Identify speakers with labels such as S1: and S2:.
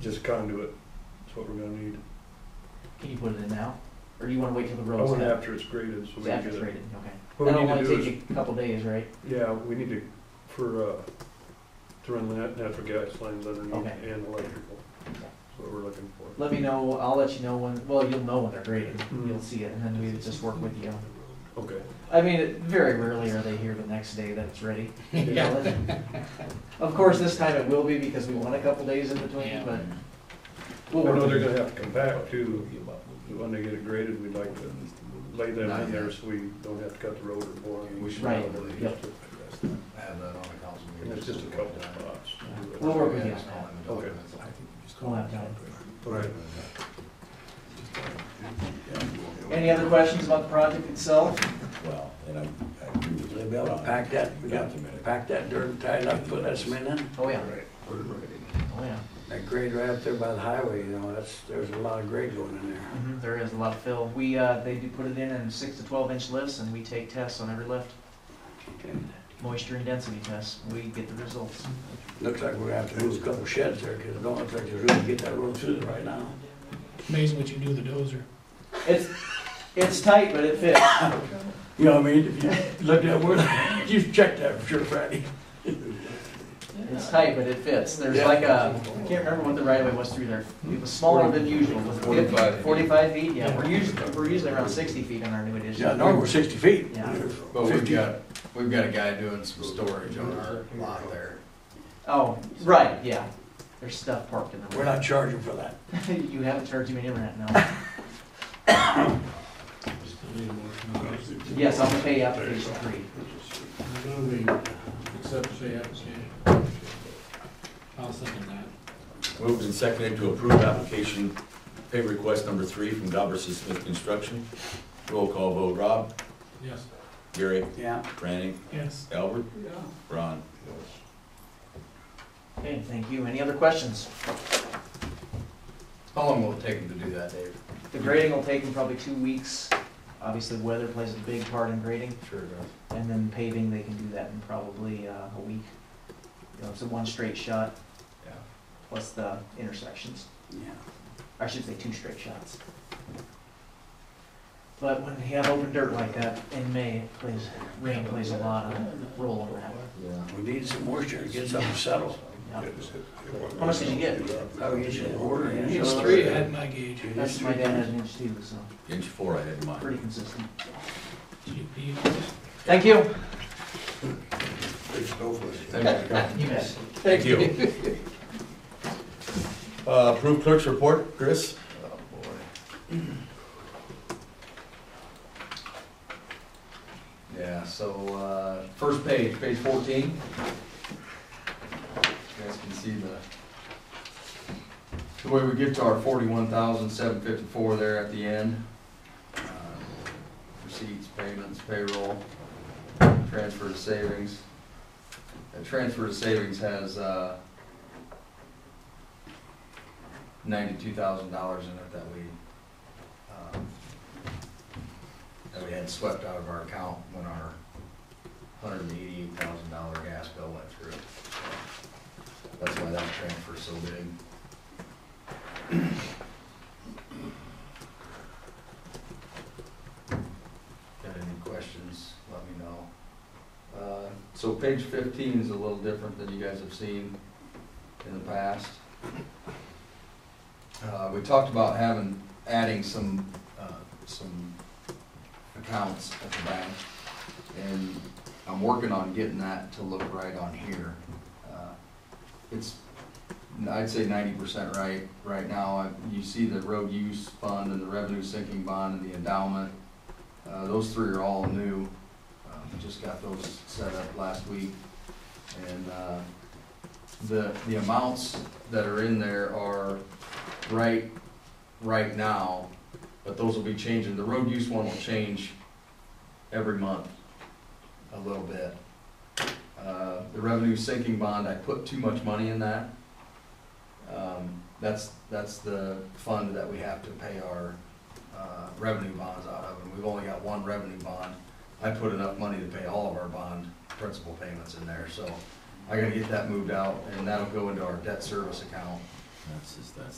S1: Just conduit, that's what we're gonna need.
S2: Can you put it in now? Or do you wanna wait till the
S1: I
S2: road's
S1: went
S2: done?
S1: after it's graded, so we
S2: It's
S1: can
S2: after
S1: get
S2: it's
S1: it.
S2: rated, okay.
S1: What we
S2: That'll
S1: need to
S2: only
S1: do is,
S2: take you a couple days, right?
S1: yeah, we need to, for, uh, to run the nat- natural gas lines underneath
S2: Okay.
S1: and electrical. That's what we're looking for.
S2: Let me know, I'll let you know when, well, you'll know when they're graded,
S1: Mm.
S2: you'll see it, and then we just work with you.
S1: Okay.
S2: I mean, it- very rarely are they here the next day that it's ready. You
S1: Yeah.
S2: know, that's- Of course, this time it will be because we want a couple days in between,
S3: Yeah.
S2: but
S1: I
S2: we'll work
S1: know
S2: with
S1: they're
S2: you.
S1: gonna have to come back too, when they get it graded, we'd like to lay them in there so we don't have to cut the road or bore. them.
S3: We should
S2: Right,
S3: probably
S2: yep.
S3: just address that. Have that on the council meeting.
S1: And it's just a couple of spots.
S2: We'll work with you.
S3: Just call them and
S1: Okay.
S3: document it. I think we just
S2: We'll have
S3: call them.
S1: Right.
S2: Any other questions about the project itself?
S4: Well, and I, I agree with you. They'll be able to pack that, we got to pack that dirt and tie it up, put that cement in.
S2: Oh, yeah,
S1: Right.
S2: oh, yeah.
S4: That grade right up there by the highway, you know, that's, there's a lot of grade going in there.
S2: Mhm, There is a lot of fill. We, uh, they do put it in in six to twelve inch lifts and we take tests on every lift, moisture and density tests. We get the results.
S4: Looks like we're gonna have to move a couple sheds there, cause it don't look like they're gonna get that road through there right now.
S5: Amazing what you can do with a dozer.
S2: It's, it's tight, but it fits.
S4: You know what I mean? If you looked at where, you checked that for sure, Friday.
S2: It's tight, but it fits. There's like a, I can't remember what the right of way was through there. It was smaller than usual. Was it 50,
S3: 45 feet.
S2: Forty-five feet, yeah. We're usually, we're usually around sixty feet on our new
S4: Yeah,
S2: edition.
S4: normally we're sixty feet.
S2: Yeah.
S3: But we've
S4: 50.
S3: got, we've got a guy doing some storage on our lot there.
S2: Oh, right, yeah. There's stuff parked in the
S4: We're not charging for that.
S2: You haven't charged me any rent, no. Yes, I'm gonna pay application three.
S5: Accept the application. I'll second that.
S6: Moved and seconded to approve application pay request number three from Goberson Smith Construction. Roll call vote, Rob,
S5: Yes.
S6: Gary,
S4: Yeah.
S6: Franny,
S5: Yes.
S6: Albert, Ron.
S2: Okay, thank you. Any other questions?
S3: How long will it take him to do that, Dave?
S2: The grading will take them probably two weeks. Obviously, weather plays a big part in grading,
S3: Sure does.
S2: and then paving, they can do that in probably uh, a week. You know, it's a one straight shot,
S3: Yeah.
S2: plus the intersections.
S4: Yeah.
S2: I should say two straight shots. But when you have open dirt like that in May, it plays, rain plays a lot of role in that.
S3: Yeah.
S4: We need some moisture to get something settled.
S2: Yeah. How much did you get?
S4: Oh, you should order it.
S5: It's three at my gauge.
S4: Two,
S2: That's my
S4: three
S2: dad
S4: times.
S2: has an inch too, so
S6: Inch four I had in mind.
S2: pretty consistent.
S5: You-
S2: Thank you.
S3: Thank you.
S2: You bet.
S6: Thank you. Uh, Approved clerk's report, Chris?
S3: Oh, boy. Yeah, so, uh, first page, page fourteen. You guys can see the, the way we get to our forty-one thousand, seven fifty-four there at the end. Uh, Receipts, payments, payroll, transfer to savings. That transfer to savings has, uh, ninety-two thousand dollars in it that we, um, that we had swept out of our account when our hundred and eighty-eight thousand dollar gas bill went through. That's why that transfer's so big. Got any questions, let me know. Uh, So page fifteen is a little different than you guys have seen in the past. Uh, we talked about having, adding some, uh, some accounts at the bank. And I'm working on getting that to look right on here. Uh, It's, I'd say ninety percent right, right now. I- You see the road use fund and the revenue sinking bond and the endowment. Uh, those three are all new. Uh, Just got those set up last week. And, uh, the, the amounts that are in there are right, right now, but those will be changing. The road use one will change every month a little bit. Uh, The revenue sinking bond, I put too much money in that. Um, That's, that's the fund that we have to pay our uh, revenue bonds out of, and we've only got one revenue bond. I put enough money to pay all of our bond principal payments in there, so I gotta get that moved out, and that'll go into our debt service account
S5: That's, just- that's